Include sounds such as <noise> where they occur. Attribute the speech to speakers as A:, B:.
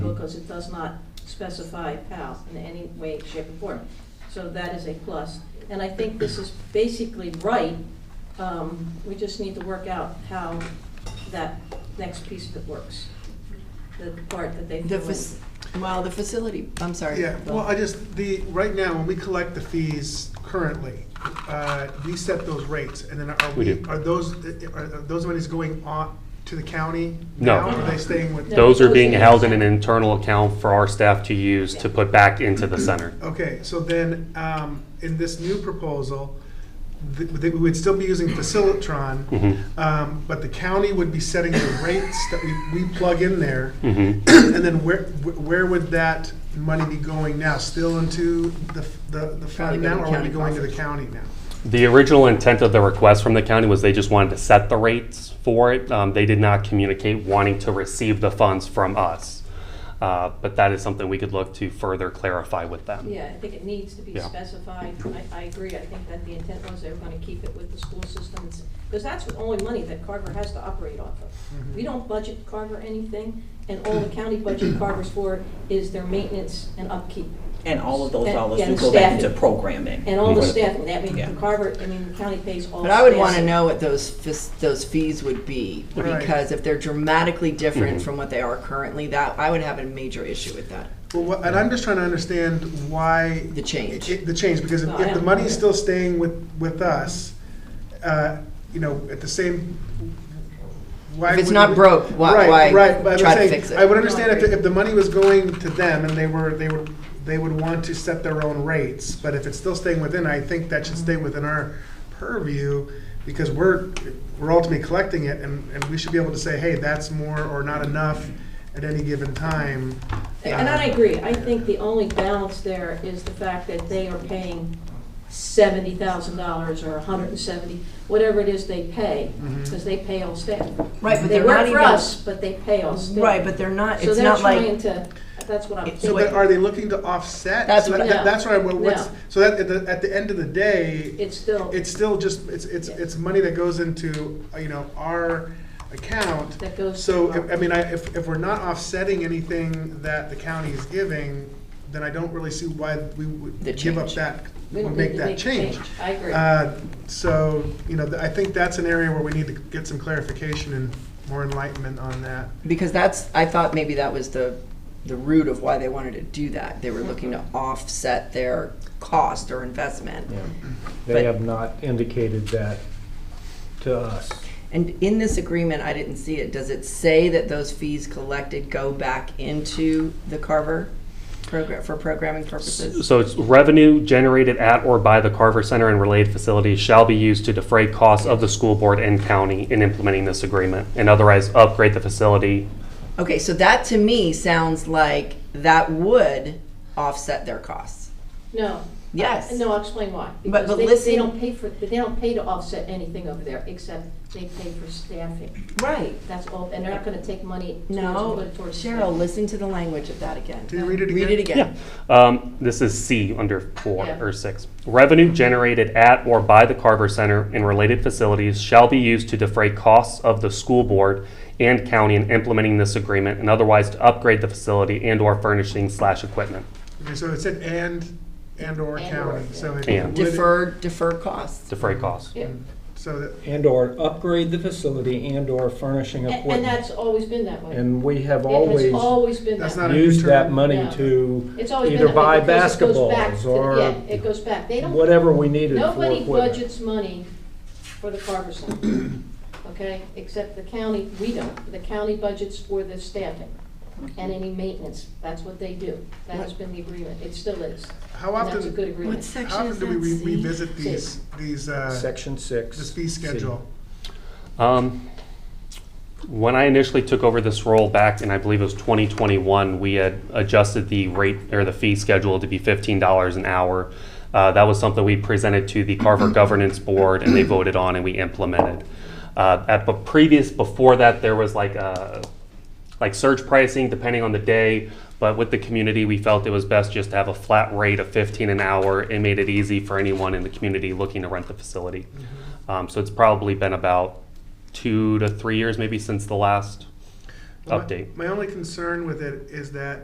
A: because it does not specify PAL in any way, shape, or form. So that is a plus. And I think this is basically right. Um, We just need to work out how that next piece of it works, the part that they
B: The,
A: threw in.
B: fac- well, the facility, I'm sorry.
C: Yeah,
B: Bill.
C: well, I just, the, right now, when we collect the fees currently, uh, we set those rates, and then are
D: We
C: we,
D: do.
C: are those, are are those monies going on to the county?
D: No.
C: now, Or are they staying with?
A: No.
D: Those are being
A: Those are-
D: held in an internal account for our staff to use to put back into the center.
C: Okay, so then, um, in this new proposal, th- th- we would still be using Facilitron,
D: Mhm,
C: um, but the county would be setting the rates that we, we plug in there.
D: mhm.
C: And then where, wh- where would that money be going now? Still into the, f- the the fund
B: Probably go
C: now,
B: to
C: or would it be
B: county
C: going to the
B: coffers.
C: county now?
D: The original intent of the request from the county was they just wanted to set the rates for it. Um, They did not communicate wanting to receive the funds from us. Uh, But that is something we could look to further clarify with them.
A: Yeah, I think it needs to be
D: Yeah.
A: specified. I, I agree. I think that the intent was they were gonna keep it with the school systems, because that's the only money that Carver has to operate off
B: Mm-hmm.
A: of. We don't budget Carver anything, and all the county budget Carver's for is their maintenance and upkeep.
E: And all of those
A: And-
E: dollars do
A: and
E: go back into
A: staffing.
E: programming.
A: And all the
D: Mhm.
A: staffing, that means
E: Yeah.
A: the Carver, I mean, the county pays all.
B: But I would
A: staff.
B: want to know what those fis- those fees would be
C: Right.
B: because if they're dramatically different
D: Mhm.
B: from what they are currently, that I would have a major issue with that.
C: Well, what- and I'm just trying to understand why.
B: The change.
C: it- The change, because if
A: No, I
C: if the
A: don't-
C: money's still staying with, with us, uh, you know, at the same, why?
B: If it's
C: would
B: not
C: we-
B: broke, why-
C: Right,
B: why
C: right, but I'm
B: try to
C: saying,
B: fix it?
C: I would understand if, the- if the money was going to them and they were, they would, they would want to set their own rates, but if it's still staying within, I think that should stay within our purview, because we're, we're ultimately collecting it, and, and we should be able to say, hey, that's more or not enough at any given time. Um,
A: And I agree. I think the only balance there is the fact that they are paying seventy thousand dollars or a hundred and seventy, whatever it is they pay,
B: Mm-hmm.
C: Mhm.
A: because they pay all staff.
B: Right, but
A: They
B: they're
A: work
B: not
A: for
B: even-
A: us, but they pay all staff.
B: Right, but they're not.
A: So
B: it's
A: they're
B: not
A: trying
B: like
A: to, that's what I'm
C: So then
A: thinking.
C: are they looking to offset?
B: That's
C: So
B: what-
C: that- That's right,
A: No.
C: what's, so that, at the, at the end of the day,
A: It's still,
C: it's still just, it's, it's,
A: Yeah.
C: it's money that goes into, uh, you know, our account.
A: that goes.
C: So, I- I mean, I, if, if we're not offsetting anything that the county is giving, then I don't really see why we would
B: The
C: give up
B: change.
C: that,
A: We
C: or
A: don't need
C: make
A: to
C: that change.
A: I agree.
C: Uh, So, you know, th- I think that's an area where we need to get some clarification and more enlightenment on that.
B: because that's I thought maybe that was the the root of why they wanted to do that. They were looking to offset their cost or investment.
F: Yeah.
B: But-
F: They have not indicated that to us.
B: And in this agreement, I didn't see it. Does it say that those fees collected go back into the Carver program for programming purposes?
D: So it's revenue generated at or by the Carver Center and related facilities shall be used to defray costs of the school board and county in implementing this agreement and otherwise upgrade the facility.
B: Okay, so that to me sounds like that would offset their costs.
A: No.
B: Yes.
A: No, I'll explain why.
B: But-
A: Because
B: but
A: they-
B: listen-
A: They don't pay for, they don't pay to offset anything over there, except they pay for staffing.
B: Right.
A: That's all, and they're not gonna take money. towards- put
B: No,
A: it towards
B: Cheryl, listen to the language of that again.
C: Can you read it again?
B: Read it again.
D: Um, this is C under four
A: Yeah.
D: or six. Revenue generated at or by the Carver Center and related facilities shall be used to defray costs of the school board and county in implementing this agreement and otherwise to upgrade the facility and or furnishing slash equipment.
C: Okay, so it said and, and/or
A: And/or,
C: county, so it
D: And.
C: would.
B: Defer, defer costs.
D: Defray costs.
F: Mm.
A: Yeah.
C: So that,
F: And/or upgrade the facility and/or furnishing
A: And, and
F: equipment.
A: that's always been that way.
F: And we have
A: It's
F: always
A: always been that
C: That's
A: way.
C: not a new
F: used that
C: term.
F: money
A: No.
F: to
A: It's always been
F: either
A: that way
F: buy
A: because it goes back to
F: basketballs
A: the-
F: or
A: Yeah, it goes back. They don't
F: whatever we needed for
A: Nobody
F: equipment.
A: budgets money for the Carver Center,
C: <clears throat>
A: okay? Except the county, we don't. The county budgets for the staffing and any maintenance. That's what they do. That has been the agreement. It still is.
C: how
A: And
C: often?
A: that's a good agreement.
C: How often do we re- revisit
A: Six.
C: these, these, uh,
F: Section six.
C: this fee
F: C.
C: schedule?
D: Um, when I initially took over this role back in, I believe it was 2021, we had adjusted the rate or the fee schedule to be $15 an hour. Uh, that was something we presented to the Carver Governance Board and they voted on and we implemented. Uh, at the previous, before that, there was like a like surge pricing depending on the day. But with the community, we felt it was best just to have a flat rate of 15 an hour. It made it easy for anyone in the community looking to rent the facility. Um, so it's probably been about two to three years maybe since the last
C: Well, my-
D: update.
C: My only concern with it is that